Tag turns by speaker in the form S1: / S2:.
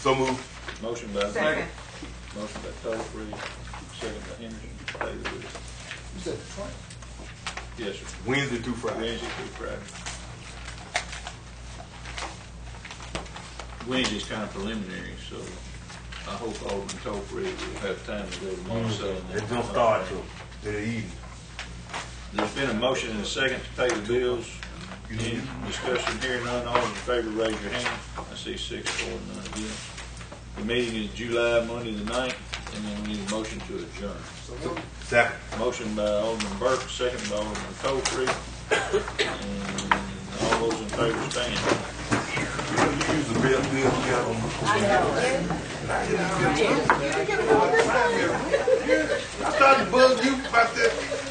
S1: So moved.
S2: Motion by
S3: Second.
S2: Motion by Tollfree, second by Henderson, Daily Wilson.
S4: You said the twenty?
S2: Yes, sir.
S1: Wednesday through Friday.
S2: Wednesday through Friday. Wednesday's kind of preliminary, so I hope Alderman Tollfree will have time to go to Monticello. and-
S1: It's gonna start till, till the evening.
S2: There's been a motion and a second to pay the bills. Any discussion here, none, all in favor, raise your hand. I see six, four, none against. The meeting is July, Monday the ninth, and then we need a motion to adjourn.
S4: So moved.
S1: Second.
S2: Motion by Alderman Burke, second by Alderman Tolfree. And all those in favor stand.
S1: You use the bill, bill, bill. I thought to bug you about that.